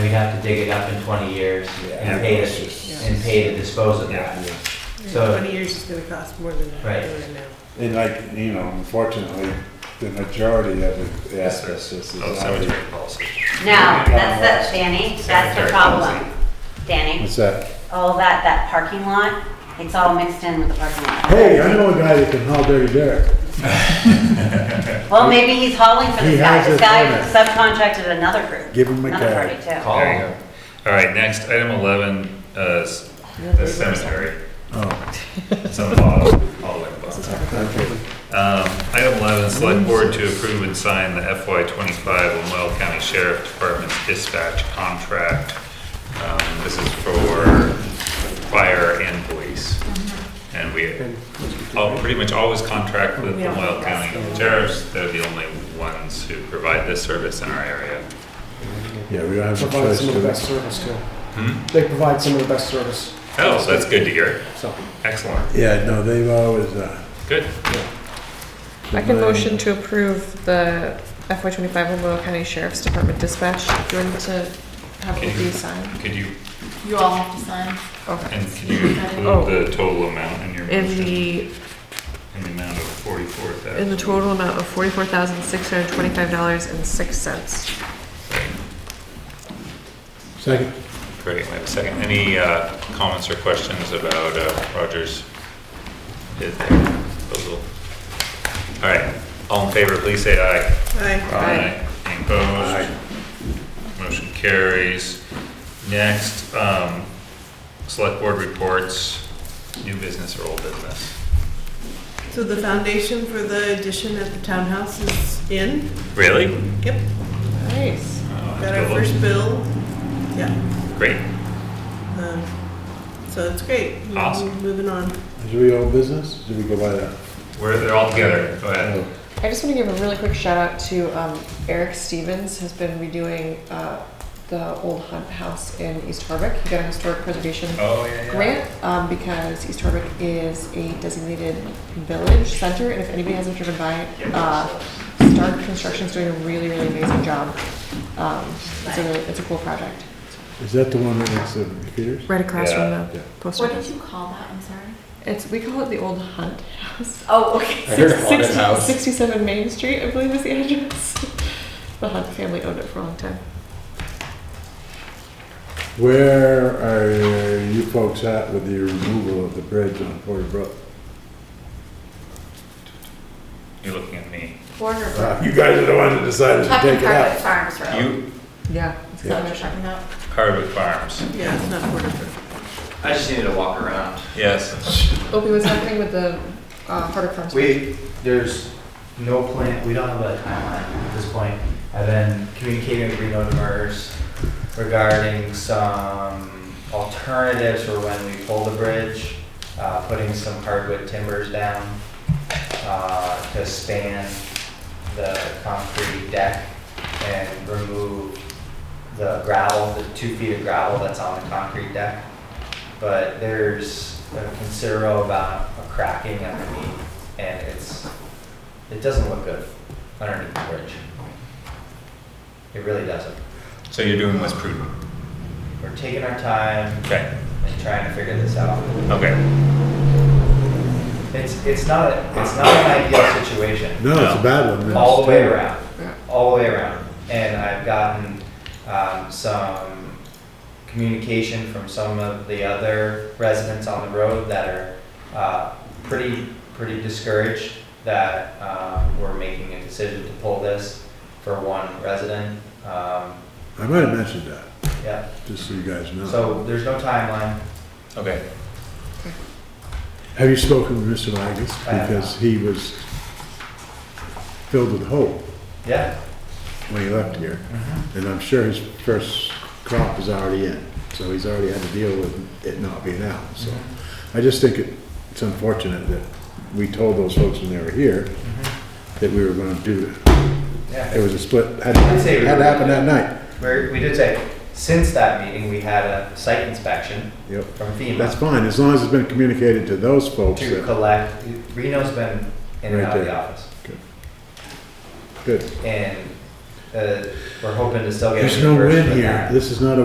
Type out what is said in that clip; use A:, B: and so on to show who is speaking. A: we'd have to dig it up in twenty years
B: Yeah.
A: and pay
B: It's
A: to,
B: just-
A: and pay to dispose of
B: Yeah.
A: that. So-
C: Twenty years is gonna cost more than
A: Right.
C: that doing it now.
B: And like, you know, unfortunately, the majority of the
D: Yes, sir.
B: asbestos is
D: Oh,
B: out
D: cemetery
B: there.
D: policy.
E: No, that's the, Danny, that's the
D: Cemetery
E: problem. Danny,
B: What's that?
E: all that, that parking lot, it's all mixed in with the parking lot.
B: Hey, I know a guy that can haul dirty dirt.
E: Well, maybe he's hauling for
B: He
E: this guy.
B: has
E: This
B: a
E: guy
B: permit.
E: subcontracted another group.
B: Give him a
E: Another
B: card.
E: party too.
A: Call.
D: There you go. All right, next, item 11, uh, s- the cemetery.
B: Oh,
D: It's on the bottom, all the way at the bottom.
B: okay.
D: Um, Item 11, select board to approve and sign the FY25 Lemoyle County Sheriff Department's dispatch contract. Um, This is for fire and police. And we all, pretty much always contract with
C: Yeah.
D: Lemoyle County Sheriffs. They're the only ones who provide this service in our area.
B: Yeah, we don't have a
F: provide
B: choice.
F: some of the
B: do we?
F: best service too. They provide some of the best service,
D: Oh, that's good to hear.
F: so.
D: Excellent.
B: Yeah, no, they've always, uh.
D: Good.
G: I can motion to approve the FY twenty-five Lemoyle County Sheriff's Department dispatch. Do you want me to have
D: Can
G: it
D: you-
G: be signed?
D: Could you,
H: You all have to sign.
G: Okay.
D: and could you
G: Oh.
D: include the total amount in your
G: In
D: motion?
G: the,
D: In the amount of 44,000?
G: in the total amount of forty-four thousand, six hundred and twenty-five dollars and six cents.
B: Second.
D: Great, wait a second. Any uh, comments or questions about uh, Roger's bid there, proposal? All right, all in favor, please say aye.
C: Aye.
G: Aye.
D: Any Opposed? Motion carries. Next, um, select board reports, new business or old business.
C: So the foundation for the addition at the townhouse is in.
D: Really?
C: Yep.
D: Oh,
G: Nice.
C: Got our first bill. Yeah.
D: Great,
C: um, So it's great.
D: Awesome.
C: Moving on.
B: Is we old business? Did we go by that?
D: we're, they're all together, go ahead.
B: Oh,
G: I just want to give a really quick shout out to um, Eric Stevens, who's been redoing uh, the old Hunt House in East Harwick. He got a historic preservation
D: Oh, yeah, yeah.
G: grant um, because East Harwick is a designated village center, and if anybody hasn't driven by, uh, Stark Construction's doing a really, really amazing job. Um, it's a really, it's a cool project.
B: Is that the one right next to the computers?
G: Right across
D: from
G: from
B: Yeah.
G: the post
H: What did you call that? I'm sorry.
G: It's we call it the old Hunt House.
H: Oh, okay.
F: I heard haunted
G: Six-
F: house.
G: Sixty-seven Main Street, I believe, is the address. the Hunt family owned it for a long time.
B: Where are you folks at with the removal of the bridge on Porter Brook?
D: You're looking at me.
H: Border.
B: Uh, You guys are the ones that decided to
H: Talking
B: take it
H: private
B: out.
H: farms road.
D: You,
G: Yeah.
H: Is that what you're talking about?
D: Hardwood Farms,
C: Yeah, it's not portable.
I: I just needed to walk around.
D: yes.
G: Opie, what's happening with the uh, Harder Farms?
A: We, there's no plan, we don't have a timeline at this point. I've been communicating with Reno Demers regarding some alternatives for when we pull the bridge, uh, putting some hardwood timbers down, uh, to span the concrete deck and remove the gravel, the two feet of gravel that's on the concrete deck. But there's a considerable amount of cracking underneath and it's, it doesn't look good underneath the bridge. It really doesn't.
D: So you're doing what's prudent?
A: We're taking our time
D: Okay,
A: and trying to figure this out.
D: okay.
A: It's, it's not, a- it's not an ideal situation.
B: No, it's a bad one. man.
A: all the way
B: It's
A: around, all the way around. And I've gotten um, some communication from some of the other residents on the road that are uh, pretty, pretty discouraged that um, we're making a decision to pull this for one resident. Um,
B: terrible. I might have mentioned that,
A: Yeah,
B: just so you guys know.
A: so there's no timeline.
D: Okay.
B: Have you spoken with Mr. Magus?
A: I have
B: Because he was filled with hope
A: Yeah,
B: when he left here. And I'm sure his first crop is already in, so he's already had to deal with it not being out, so.
A: Mm-hmm.
B: I just think it- it's unfortunate that we told those folks when they were here that we were gonna do it.
A: yeah.
B: It was a split, had
A: I'd say we
B: had
A: were-
B: to happen that night.
A: We're- We did say, since that meeting, we had a site inspection
B: Yep.
A: from FEMA.
B: That's fine, as long as it's been communicated to those folks
A: to
B: that,
A: collect, Reno's been in and
B: Right
A: out of the
B: there.
A: office.
B: good.
A: And, uh, we're hoping to still get.
B: There's no
A: reimbursed
B: wind
A: for
B: here,
A: that.
B: this is not a